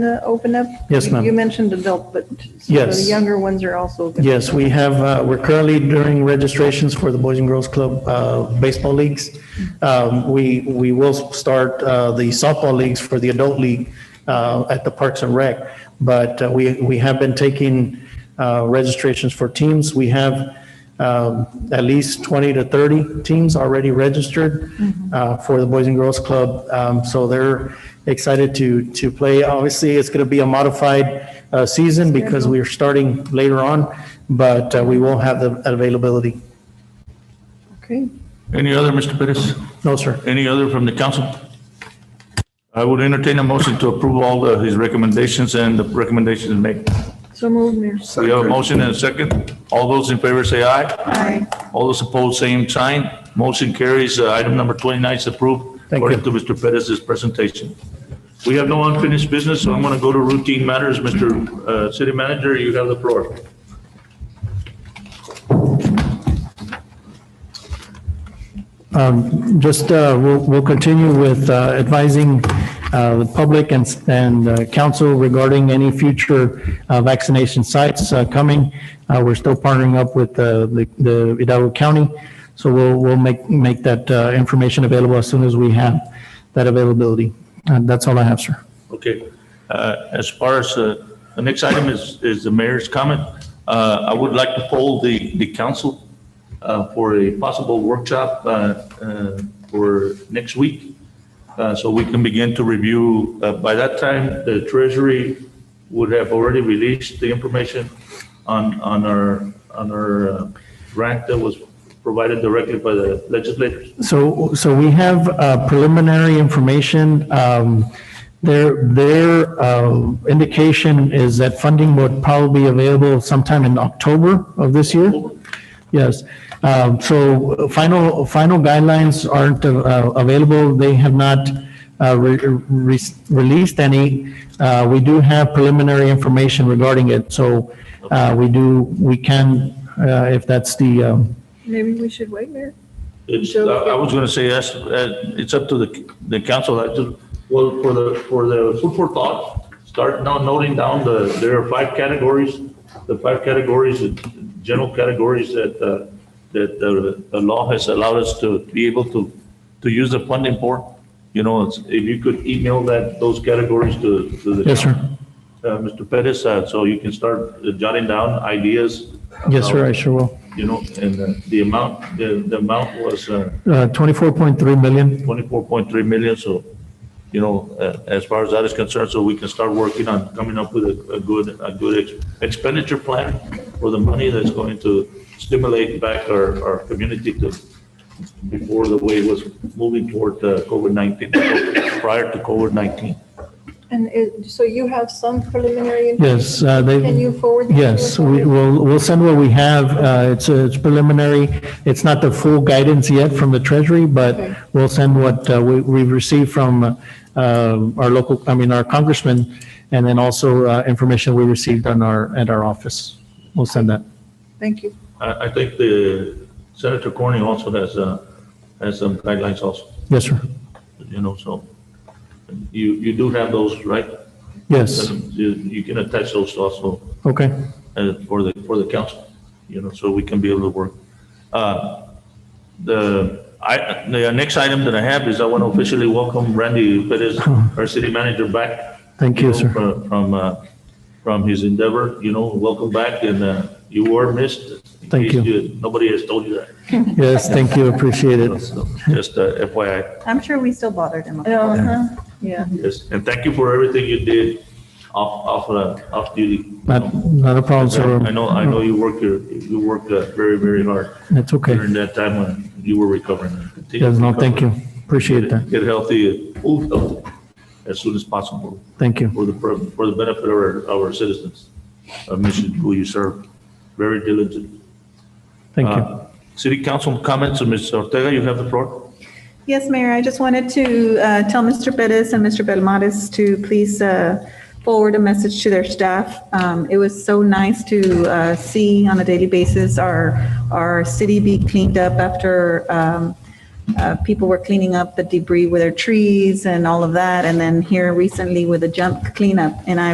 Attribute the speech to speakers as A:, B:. A: to open up?
B: Yes, ma'am.
A: You mentioned adult, but so the
B: Yes.
A: younger ones are also. gonna-
B: Yes, we have, uh, we're currently doing registrations for the Boys and Girls Club uh, baseball leagues. Um, We, we will start uh, the softball leagues for the adult league uh, at the Parks and Rec. But uh, we, we have been taking uh, registrations for teams. We have um, at least 20 to 30 teams already registered uh, for the Boys and Girls Club. Um, So they're excited to, to play. Obviously, it's going to be a modified uh, season because we are starting later on, but uh, we will have the availability.
A: Okay,
C: Any other, Mr. Pettis?
B: No, sir.
C: Any other from the council? I would entertain a motion to approve all the- his recommendations and the recommendations made.
A: so moved, Mayor.
C: We have a motion and a second. All those in favor say aye.
A: Aye.
C: All those opposed, same sign. Motion carries. Uh, Item number 29 is approved
B: Thank you.
C: according to Mr. Pettis's presentation. We have no unfinished business, so I'm going to go to routine matters. Mr. uh, City Manager, you have the floor.
B: Just, uh, we'll, we'll continue with uh, advising uh, the public and, and uh, council regarding any future uh, vaccination sites uh, coming. Uh, We're still partnering up with uh, the, the Hidalgo County, so we'll, we'll make, make that uh, information available as soon as we have that availability. And that's all I have, sir.
C: Okay, Uh, as far as, uh, the next item is, is the mayor's comment. Uh, I would like to poll the, the council uh, for a possible workshop uh, uh, for next week, uh, so we can begin to review. Uh, By that time, the treasury would have already released the information on, on our, on our uh, grant that was provided directly by the legislators.
B: So, so we have uh, preliminary information. Um, Their, their uh, indication is that funding would probably be available sometime in October of this year. Yes. Um, So final, final guidelines aren't uh, available. They have not uh, re- re- released any. Uh, We do have preliminary information regarding it, so uh, we do, we can, uh, if that's the, um,
A: Maybe we should wait, Mayor?
C: It's, I
A: So-
C: I was gonna say, yes, uh, it's up to the, the council, I just, well, for the, for the food for thought, start now noting down the, there are five categories, the five categories, the general categories that, uh, that the, the law has allowed us to be able to, to use the funding for. You know, it's- if you could email that, those categories to, to the.
B: Yes, sir.
C: council. Uh, Mr. Pettis, uh, so you can start jotting down ideas.
B: yes, sir, I
C: about,
B: sure will.
C: You know, and uh, the amount, the, the amount was, uh,
B: Uh, 24.3 million.
C: 24.3 million, so, you know, uh, as far as that is concerned, so we can start working on coming up with a, a good, a good ex- expenditure plan for the money that's going to stimulate back our, our community to, before the way it was moving toward uh, COVID-19, prior to COVID-19.
A: And it, so you have some preliminary, info?
B: Yes, uh, they.
A: Can you forward that to us,
B: Yes, we
A: Mario?
B: will, we'll send what we have. Uh, It's uh, it's preliminary. It's not the full guidance yet from the Treasury,
A: Okay.
B: but we'll send what uh, we- we've received from uh, our local, I mean, our congressman, and then also uh, information we received on our, at our office. We'll send that.
A: Thank you.
C: I, I think the Senator Corning also has, uh, has some guidelines also,
B: Yes, sir.
C: you know, so you, you do have those, right?
B: Yes,
C: You, you can attach those also.
B: okay.
C: uh, for the, for the council, you know, so we can be able to work. Uh, The, I, the next item that I have is I want to officially welcome Randy Perez, our city manager, back.
B: Thank you,
C: know,
B: sir.
C: From, from, uh, from his endeavor, you know, welcome back, and uh, you were missed. In
B: Thank
C: case
B: you.
C: Nobody has told you that,
B: Yes, thank you, appreciate it.
C: so just uh, FYI,
D: I'm sure we still bothered him.
A: Uh-huh, yeah.
C: yes, and thank you for everything you did off, off, uh, off duty. you
B: Not,
C: know.
B: not a problem, sir.
C: I know, I know you work your, you work uh, very, very hard.
B: It's okay.
C: during that time when you were recovering. Continue
B: Yes,
C: to
B: no,
C: recover.
B: thank you. Appreciate
C: Get-
B: that.
C: Get healthy, move healthy as soon as possible
B: Thank you.
C: for the, pro- for the benefit of our, our citizens of Mission who you serve. Very diligent.
B: Thank you.
C: Uh, City Council comments, Ms. Ortega, you have the floor.
D: Yes, Mayor, I just wanted to uh, tell Mr. Pettis and Mr. Belmontes to please uh, forward a message to their staff. Um, It was so nice to uh, see on a daily basis our, our city be cleaned up after um, uh, people were cleaning up the debris with their trees and all of that. And then here recently with the jump cleanup, and I